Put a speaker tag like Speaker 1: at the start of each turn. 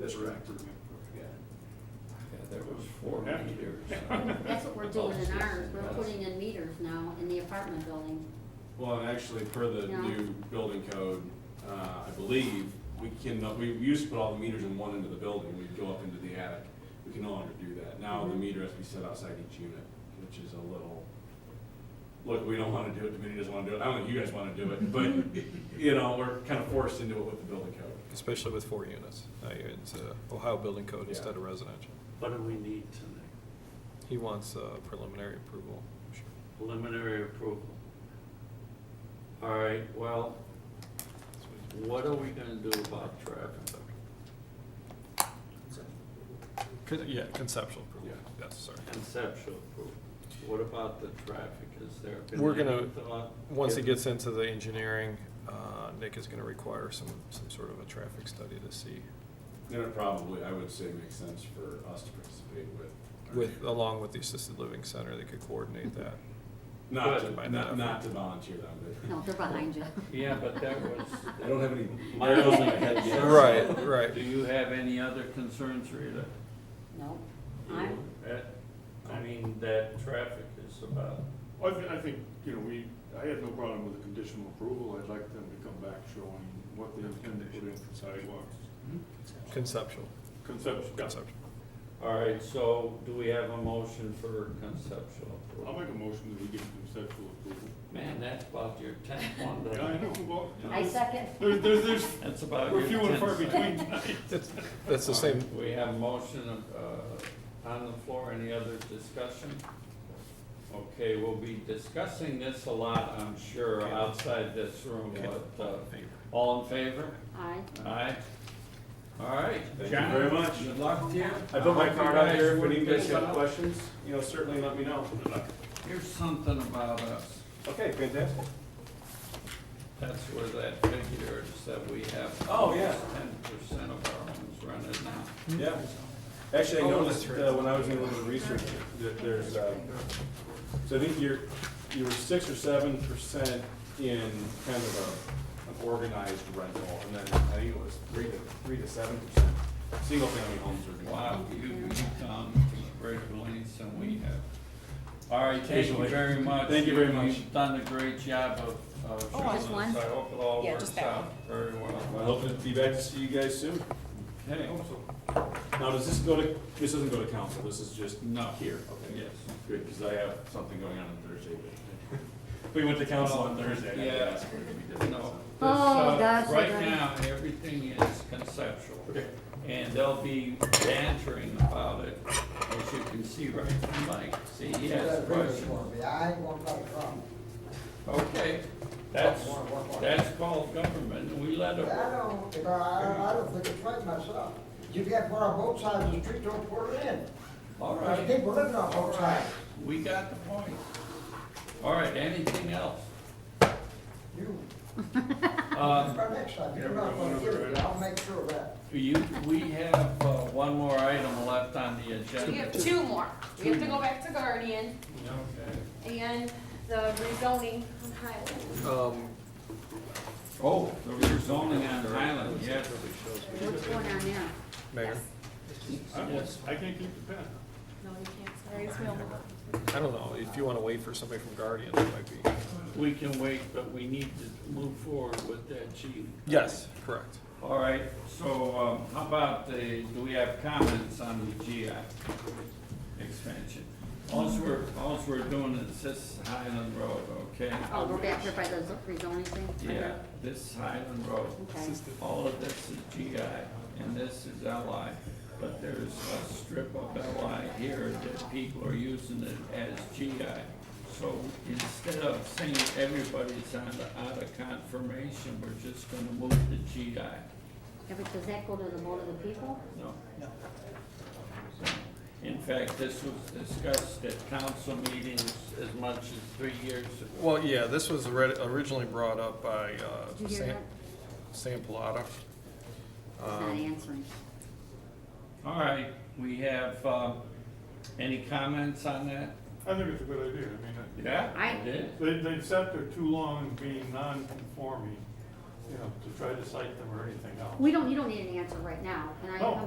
Speaker 1: That's correct.
Speaker 2: Yeah.
Speaker 3: Yeah, there was four
Speaker 2: Yeah.
Speaker 3: meters.
Speaker 4: That's what we're doing in ours, we're putting in meters now in the apartment building.
Speaker 1: Well, and actually, per the
Speaker 4: Yeah.
Speaker 1: new building code, uh, I believe, we can, we used to put all the meters in one end of the building, we'd go up into the attic. We can no longer do that. Now the
Speaker 4: Mhm.
Speaker 1: meter has to be set outside each unit, which is a little, look, we don't wanna do it, the committee doesn't wanna do it, I don't think you guys wanna do it, but, you know, we're kinda forced into it with the building code.
Speaker 5: Especially with four units. Uh, It's uh, Ohio building code
Speaker 1: Yeah.
Speaker 5: instead of residential.
Speaker 2: What do we need tonight?
Speaker 5: He wants uh, preliminary approval.
Speaker 2: Preliminary approval. All right, well, what are we gonna do about traffic?
Speaker 5: Con- Yeah, conceptual approval,
Speaker 1: Yeah.
Speaker 5: yes, sorry.
Speaker 2: Conceptual approval. What about the traffic? Is there
Speaker 5: We're
Speaker 2: been
Speaker 5: gonna-
Speaker 2: any thought?
Speaker 5: Once he
Speaker 2: given-
Speaker 5: gets into the engineering, uh, Nick is gonna require some, some sort of a traffic study to see
Speaker 1: Then it probably, I would say, makes sense for us to participate with. our
Speaker 5: with,
Speaker 1: neighbors.
Speaker 5: along with the assisted living center, they could coordinate that.
Speaker 1: Not
Speaker 2: Good.
Speaker 1: to, not, not to volunteer them, but.
Speaker 4: No, they're behind you.
Speaker 2: Yeah, but that was.
Speaker 1: I don't have any
Speaker 2: My
Speaker 1: arrows in my
Speaker 2: only-
Speaker 1: head yet.
Speaker 5: Right, right.
Speaker 2: Do you have any other concerns, Rita?
Speaker 4: No, I'm,
Speaker 2: That- I mean, that traffic is about,
Speaker 6: I thi- I think, you know, we, I had no problem with the conditional approval, I'd like them to come back showing what they intend to put in for sidewalks.
Speaker 5: Conceptual,
Speaker 6: Conceptual, yeah.
Speaker 5: conceptual.
Speaker 2: all right, so do we have a motion for conceptual
Speaker 6: I'll
Speaker 2: approval?
Speaker 6: make a motion that we give conceptual approval.
Speaker 2: Man, that's about your tenth one,
Speaker 6: Yeah, I know, well,
Speaker 4: I second.
Speaker 6: there's, there's, there's,
Speaker 2: That's about your
Speaker 6: we're
Speaker 2: tenth.
Speaker 6: few and far
Speaker 2: second.
Speaker 6: between tonight.
Speaker 5: That's, that's the same,
Speaker 2: We have motion uh, on the floor, any other discussion? Okay, we'll be discussing this a lot, I'm sure, outside this room, but, uh, all in favor?
Speaker 4: I,
Speaker 2: Aye. All right.
Speaker 1: Thank you
Speaker 2: John,
Speaker 1: very much.
Speaker 2: Good luck to you.
Speaker 1: I put my
Speaker 2: Hope you
Speaker 1: card out
Speaker 2: guys
Speaker 1: there, if
Speaker 2: work
Speaker 1: any of you guys
Speaker 2: this
Speaker 1: have
Speaker 2: out.
Speaker 1: questions, you know, certainly let me know.
Speaker 2: Here's something about us,
Speaker 1: Okay, fantastic.
Speaker 2: that's where that figure is that we have.
Speaker 1: Oh, yeah.
Speaker 2: Ten percent of our homes rented now.
Speaker 1: Yeah. Actually, I
Speaker 5: Oh,
Speaker 1: noticed
Speaker 5: that's right.
Speaker 1: uh, when I was doing a little research that there's, uh, so I think you're, you were six or seven percent in kind of a, an organized rental, and then I think it was three to, three to seven percent. Single-family homes are.
Speaker 2: Wow, you, you come to greater lengths than we have. All right, thank you
Speaker 1: Occasionally.
Speaker 2: very much.
Speaker 1: Thank you very much.
Speaker 2: You've done a great job of, of
Speaker 7: Oh, I-
Speaker 2: showing
Speaker 7: Just
Speaker 2: us.
Speaker 7: one?
Speaker 2: I hope it all
Speaker 7: Yeah,
Speaker 2: works
Speaker 7: just that
Speaker 2: out very
Speaker 1: I
Speaker 2: well.
Speaker 1: hope to be back to see you guys soon.
Speaker 2: Okay,
Speaker 1: Now, does this go to, this doesn't go to council, this is just
Speaker 2: no,
Speaker 1: here? Okay.
Speaker 2: yes.
Speaker 1: Good, because I have something going on on Thursday. but- We went to council on Thursday. and I
Speaker 2: Yeah.
Speaker 1: asked for it to be different,
Speaker 2: No.
Speaker 1: so.
Speaker 2: This,
Speaker 4: Oh,
Speaker 2: uh,
Speaker 4: that's
Speaker 2: Right
Speaker 4: right.
Speaker 2: now, everything is conceptual.
Speaker 1: Okay.
Speaker 2: And they'll be bantering about it, as you can see right from Mike. See, he has questions.
Speaker 8: I ain't gonna play from.
Speaker 2: Okay, that's, that's called government, and we let
Speaker 8: I
Speaker 2: it work.
Speaker 8: don't, you know, I, I don't think it's right myself. You got one on both sides of the street, don't pour it in.
Speaker 2: All
Speaker 8: There's
Speaker 2: right,
Speaker 8: people living on both sides.
Speaker 2: we got the point. All right, anything else?
Speaker 8: You,
Speaker 2: Uh,
Speaker 8: by next time, you're not gonna get it, I'll make sure of that.
Speaker 2: you, we have, uh, one more item left on the agenda.
Speaker 7: We have two more. We have to go back to Guardian
Speaker 2: Okay.
Speaker 7: and the rezoning on Highland.
Speaker 5: um,
Speaker 2: Oh, the rezoning on Highland, yes.
Speaker 4: what's going on there?
Speaker 5: Mayor,
Speaker 2: Yes.
Speaker 6: I can't keep the pen.
Speaker 7: No, you can't. Sorry, it's Wilma.
Speaker 5: I don't know, if you wanna wait for somebody from Guardian, that might be.
Speaker 2: We can wait, but we need to move forward with that, chief.
Speaker 5: Yes, correct.
Speaker 2: All right, so um, how about the, do we have comments on the GI expansion? Alls we're, alls we're doing is this Highland Road, okay?
Speaker 4: Oh, we're back here by the z- rezoning thing?
Speaker 2: Yeah, this Highland Road.
Speaker 4: Okay.
Speaker 2: All of this is GI, and this is LI, but there's a strip of LI here that people are using it as GI. So instead of saying everybody's on the, out of confirmation, we're just gonna move to GI,
Speaker 4: Yeah, but does that go to the vote of the people?
Speaker 2: no? No. In fact, this was discussed at council meetings as much as three years ago.
Speaker 5: Well, yeah, this was ori- originally brought up by uh,
Speaker 4: Did you hear
Speaker 5: Sam,
Speaker 4: that?
Speaker 5: Sam Pallotta.
Speaker 4: It's not
Speaker 5: Um,
Speaker 4: answering.
Speaker 2: All right, we have, uh, any comments on that?
Speaker 6: I think it's a good idea, I mean, I-
Speaker 2: Yeah,
Speaker 4: I-
Speaker 2: it is.
Speaker 6: They, they've sat there too long being non-conforming, you know, to try to cite them or anything else.
Speaker 4: We don't, you don't need an answer right now, and I,
Speaker 6: No.
Speaker 4: I'm